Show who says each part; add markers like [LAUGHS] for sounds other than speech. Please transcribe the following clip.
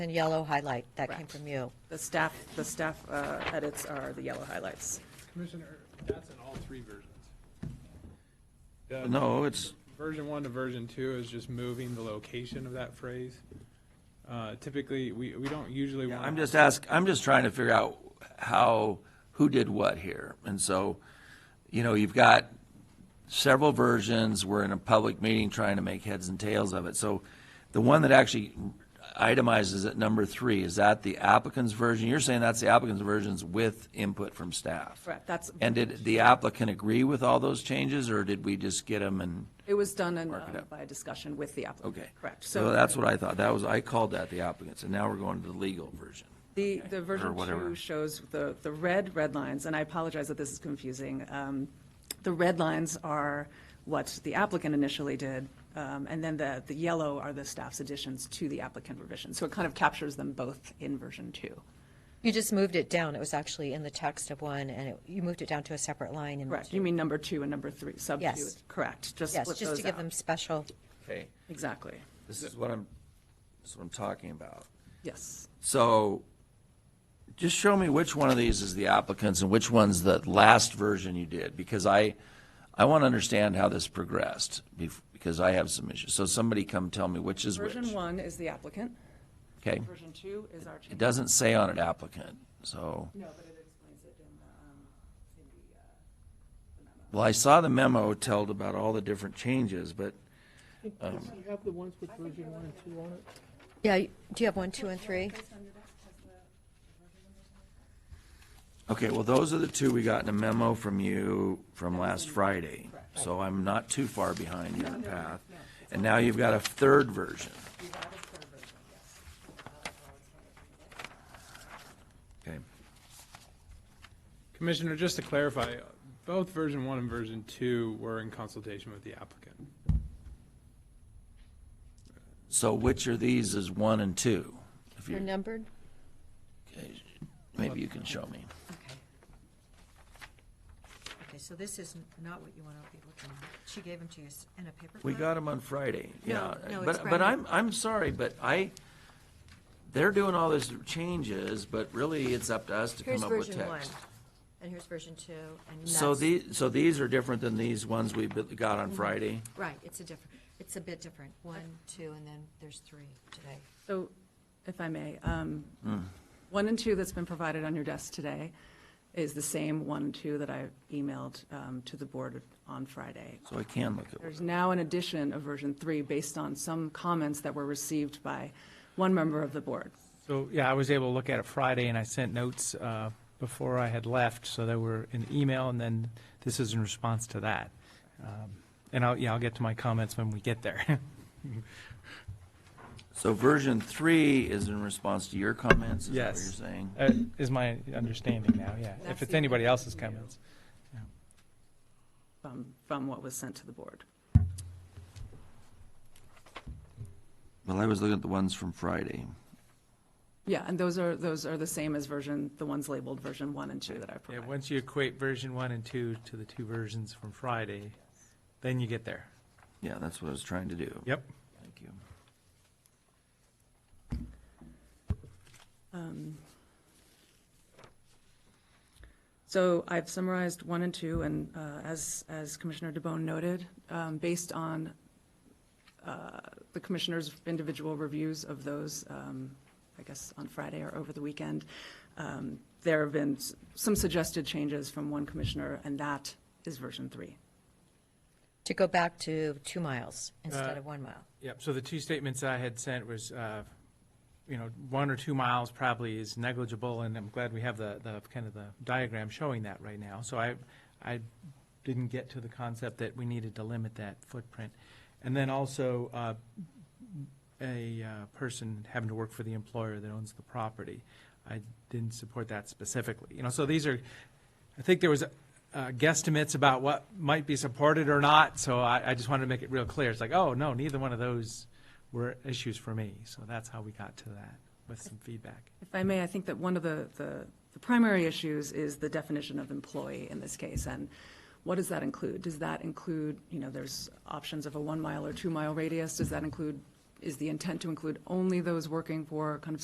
Speaker 1: And yellow highlight, that came
Speaker 2: Correct.
Speaker 1: from you.
Speaker 2: The staff, the staff uh, edits are the yellow highlights.
Speaker 3: Commissioner, that's in all three versions. The
Speaker 4: No, it's,
Speaker 3: Version one to version two is just moving the location of that phrase. Uh, Typically, we, we don't usually want.
Speaker 4: I'm just ask, I'm just trying to figure out how, who did what here. And so, you know, you've got several versions, we're in a public meeting trying to make heads and tails of it. So the one that actually itemizes at number three, is that the applicant's version? You're saying that's the applicant's versions with input from staff?
Speaker 2: Correct, that's-
Speaker 4: And did the applicant agree with all those changes, or did we just get them and,
Speaker 2: It was done in,
Speaker 4: Mark it
Speaker 2: uh,
Speaker 4: up.
Speaker 2: by a discussion with the applicant.
Speaker 4: okay?
Speaker 2: Correct.
Speaker 4: So that's what I thought, that was, I called that the applicant's, and now we're going to the legal version.
Speaker 2: The, the version
Speaker 4: whatever.
Speaker 2: two shows the, the red, red lines, and I apologize that this is confusing. Um, The red lines are what the applicant initially did, um, and then the, the yellow are the staff's additions to the applicant revision. So it kind of captures them both in version two.
Speaker 1: You just moved it down. It was actually in the text of one, and it- you moved it down to a separate line. in
Speaker 2: Correct,
Speaker 1: two.
Speaker 2: you mean number two and number three, sub two?
Speaker 1: Yes.
Speaker 2: Correct, just
Speaker 1: Yes,
Speaker 2: split
Speaker 1: just to
Speaker 2: those
Speaker 1: give them
Speaker 2: out.
Speaker 1: special,
Speaker 4: Okay.
Speaker 2: Exactly,
Speaker 4: This is what I'm, this is what I'm talking about.
Speaker 2: yes.
Speaker 4: So just show me which one of these is the applicant's and which one's the last version you did, because I, I want to understand how this progressed, bef- because I have some issues. So somebody come tell me which is which.
Speaker 2: Version one is the applicant,
Speaker 4: Okay.
Speaker 2: version two is our change.
Speaker 4: It doesn't say on it applicant, so,
Speaker 2: No, but it explains it in the, um, in the, uh,
Speaker 4: well, I saw the memo told about all the different changes, but
Speaker 5: Does he have the ones with version one and two on it?
Speaker 1: yeah, you- do you have one, two, and three?
Speaker 4: Okay, well, those are the two we got in a memo from you from last Friday. So I'm not too far behind your path. And now you've got a third version. Okay,
Speaker 3: Commissioner, just to clarify, both version one and version two were in consultation with the applicant.
Speaker 4: so which are these is one and two? If
Speaker 1: They're
Speaker 4: you,
Speaker 1: numbered?
Speaker 4: okay, maybe you can show me.
Speaker 1: Okay. Okay, so this is not what you want to be looking at. She gave them to you in a paper
Speaker 4: We got them on Friday, yeah.
Speaker 1: No, no, it's
Speaker 4: But, but
Speaker 1: Friday.
Speaker 4: I'm, I'm sorry, but I, they're doing all these changes, but really it's up to us to
Speaker 1: Here's
Speaker 4: come up with text.
Speaker 1: version one, and here's version two, and that's.
Speaker 4: So these, so these are different than these ones we bu- got on Friday?
Speaker 1: Right, it's a different, it's a bit different. One, two, and then there's three today.
Speaker 2: So, if I may, um, one and two that's been provided on your desk today is the same one and two that I emailed um, to the board on Friday.
Speaker 4: So I can look at,
Speaker 2: There's now an addition of version three based on some comments that were received by one member of the board.
Speaker 6: So, yeah, I was able to look at it Friday, and I sent notes uh, before I had left, so they were in email, and then this is in response to that. Um, And I'll, yeah, I'll get to my comments when we get there. [LAUGHS]
Speaker 4: so version three is in response to your comments, is that what
Speaker 6: Yes.
Speaker 4: you're saying?
Speaker 6: Uh, Is my understanding now, yeah,
Speaker 2: That's
Speaker 6: if it's
Speaker 2: the
Speaker 6: anybody
Speaker 2: only
Speaker 6: else's
Speaker 2: thing you-
Speaker 6: comments.
Speaker 2: From, from what was sent to the board.
Speaker 4: Well, I was looking at the ones from Friday.
Speaker 2: Yeah, and those are, those are the same as version, the ones labeled version one and two that I
Speaker 6: Yeah,
Speaker 2: provided.
Speaker 6: once you equate version one and two to the two versions from Friday, then you get there.
Speaker 4: Yeah, that's what I was trying to do.
Speaker 6: Yep.
Speaker 4: Thank you.
Speaker 2: Um, So I've summarized one and two, and uh, as, as Commissioner DeBonne noted, um, based on uh, the commissioners' individual reviews of those, um, I guess on Friday or over the weekend, um, there have been s- some suggested changes from one commissioner, and that is version three.
Speaker 1: To go back to two miles instead
Speaker 6: Uh,
Speaker 1: of one mile.
Speaker 6: Yep, so the two statements I had sent was, uh, you know, one or two miles probably is negligible, and I'm glad we have the, the, kind of the diagram showing that right now. So I, I didn't get to the concept that we needed to limit that footprint. And then also, uh, a uh, person having to work for the employer that owns the property. I didn't support that specifically. You know, so these are, I think there was uh, guesstimates about what might be supported or not, so I, I just wanted to make it real clear. It's like, oh, no, neither one of those were issues for me. So that's how we got to that, with some feedback.
Speaker 2: If I may, I think that one of the, the, the primary issues is the definition of employee in this case, and what does that include? Does that include, you know, there's options of a one mile or two mile radius, does that include, is the intent to include only those working for kind of